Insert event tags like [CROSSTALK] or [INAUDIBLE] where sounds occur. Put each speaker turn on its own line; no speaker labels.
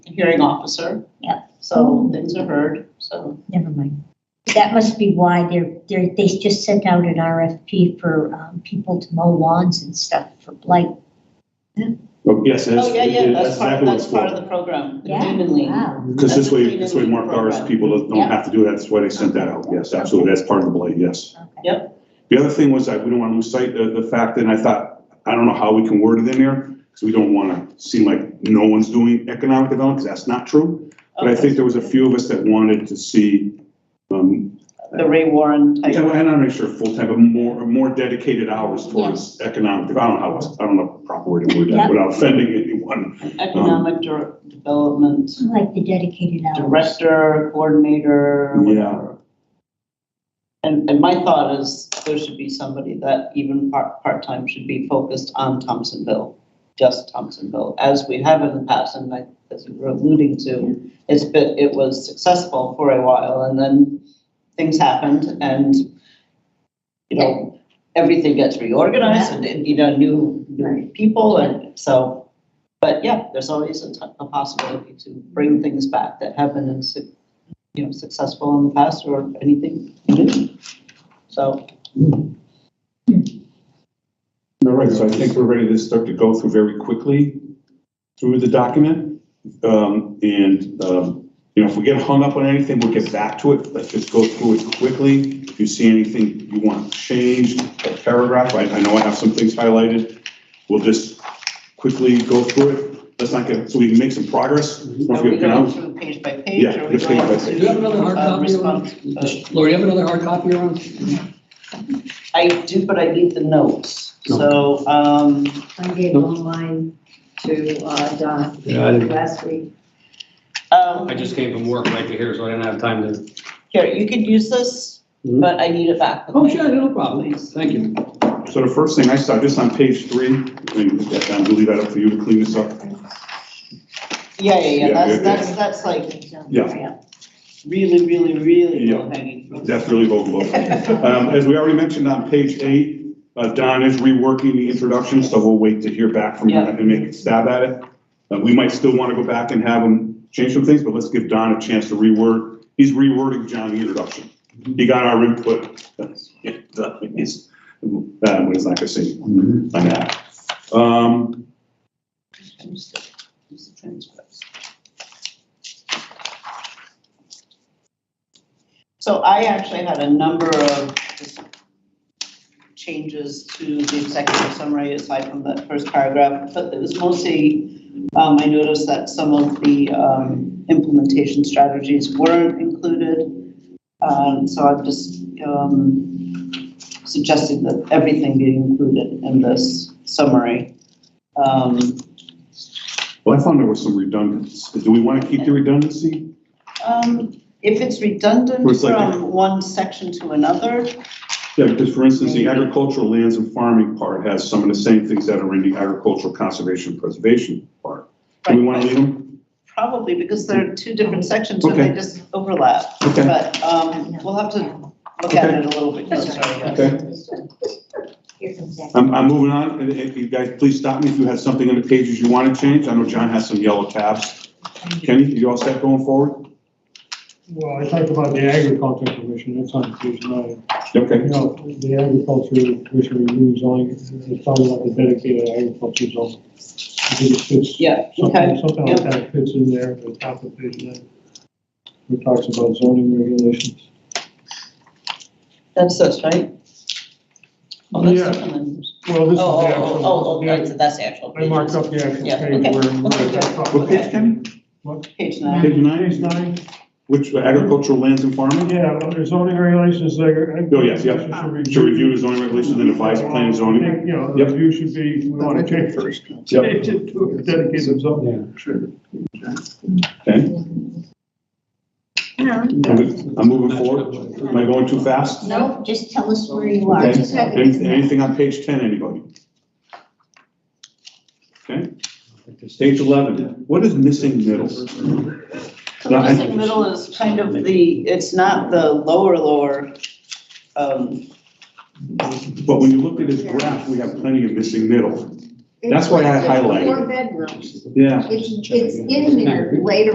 hearing officer.
Yeah.
So things are heard, so.
Never mind. That must be why they're, they're, they just sent out an RFP for, um, people to mow lawns and stuff for blight.
Well, Yes, that's,
Oh, yeah, yeah, that's part,
exactly what
that's
it's
part of
for.
the program, the
Yeah.
Demon League.
Wow.
Because
that's
this
the
way,
freedom
this way
of
more cars,
program.
people don't-
Yeah.
don't have to do that. That's why they sent that out. Yes, absolutely. That's part of the blade, yes.
Okay.
Yep.
The other thing was, I, we don't want to lose sight of the fact, and I thought, I don't know how we can word it in there, because we don't want to seem like no one's doing economic development, because that's not true. But I
Okay.
think there was a few of us that wanted to see, um,
The Ray Warren type.
and I'm not really sure full-time, but more, more dedicated hours towards economic, I don't know how, it's- I don't know the proper way to word
Yeah.
that without offending anyone.
economic dir- development
I Like the dedicated uh, hours.
director, coordinator,
Yeah.
whatever. And, and my thought is there should be somebody that even part, part-time should be focused on Thompsonville, just Thompsonville, as we have in the past, and like, as you were alluding to, it's been, it was successful for a while, and then things happened, and, you know, everything gets reorganized, and, and, you know, new, new
Right.
people, and so, but yeah, there's always a, t- a possibility to bring things back that have been, in su- you know, successful in the past or anything new. So,
All right, so I think we're ready to start to go through very quickly through the document. Um, and, um, you know, if we get hung up on anything, we'll get back to it. Let's just go through it quickly. If you see anything you want changed, a paragraph, I, I know I have some things highlighted. We'll just quickly go through it. Let's not get, so we can make some progress. Don't
are we
forget, you
going
know,
through page by page?
Yeah,
or are we
just page
going
by page.
Do you have another hard
to, uh,
copy around?
response? Uh,
Lori, you have another hard copy around?
I do, but I need the notes.
No.
So, um,
I gave one line to uh, Don
Yeah, I didn't-
last week.
um,
I just came from work right to here, so I didn't have time to.
here, you could use this,
Mm-hmm.
Mhm.
but I need it back.
Oh, sure, no problem. Thank you.
so the first thing I saw, just on page three, I mean, I'm gonna leave that up for you to clean this up.
Yeah, yeah, yeah,
Yeah, yeah,
that's,
yeah.
that's, that's like
um,
Yeah.
really, really, really
Yeah.
low hanging fruit.
That's
[LAUGHS]
really overlooked. Um, as we already mentioned on page eight, uh, Don is reworking the introduction, so we'll wait to hear back from him
Yeah.
and make a stab at it. Uh, we might still want to go back and have him change some things, but let's give Don a chance to reword. He's rewording John the introduction. He got our input. He's, uh, what is that gonna say on that? Um,
Use the transcripts. So I actually had a number of just changes to the executive summary aside from that first paragraph, but it was mostly, um, I noticed that some of the, um, implementation strategies weren't included. Um, so I'm just, um, suggesting that everything be included in this summary. Um,
well, I found there was some redundancy. Do we want to keep the redundancy?
Um, if it's
Or
redundant
it's like-
from one section to another,
Yeah, because for instance, the agricultural lands and farming part has some of the same things that are in the agricultural conservation preservation part. Do we want to leave them?
probably because there are two different sections and they
Okay.
just overlap.
Okay,
But, um, we'll have to look at it a little bit closer, I guess.
okay. Um,
Here comes that.
I'm, I'm moving on, and if you guys, please stop me if you have something on the pages you want to change. I know John has some yellow tabs. Kenny, you all set going forward?
Well, I talked about the agriculture commission, that's on page nine. You
Okay,
know, the agriculture commission reviews only, it's talking about the dedicated agriculture zone. I think it fits.
Yeah, okay,
Something, something like that fits in there, at the top of page nine. It talks about zoning regulations.
that's this, right? Oh, that's
Yeah.
different than-
Well,
Oh, oh,
this is the
oh,
actual.
oh, oh,
yeah,
that's, that's the actual.
I marked
pages.
up the actual
Yeah,
page
okay,
where. where
okay,
I
yeah.
talked
what
about-
page, Kenny?
Page
Page
nine.
Page
nine,
nine,
which uh, agricultural lands and farming?
yeah, well, there's zoning regulations there.
Oh, yes, yeah. To review the zoning regulations and advise planning zoning.
You know, the
Yep.
review should be, we want to change first.
Yep.
Change it to a dedicated zone.
Yeah.
Okay, I'm I'm moving forward. Am I going too fast?
No, just tell us where you are.
Okay, Any- anything on page ten, anybody? Okay, page eleven, what is missing middle?
So the missing middle is kind of the, it's not the lower, lower, um,
But when you look at this graph, we have plenty of missing middle. That's why I highlighted
Four
it.
bedrooms.
Yeah.
It's, it's in there later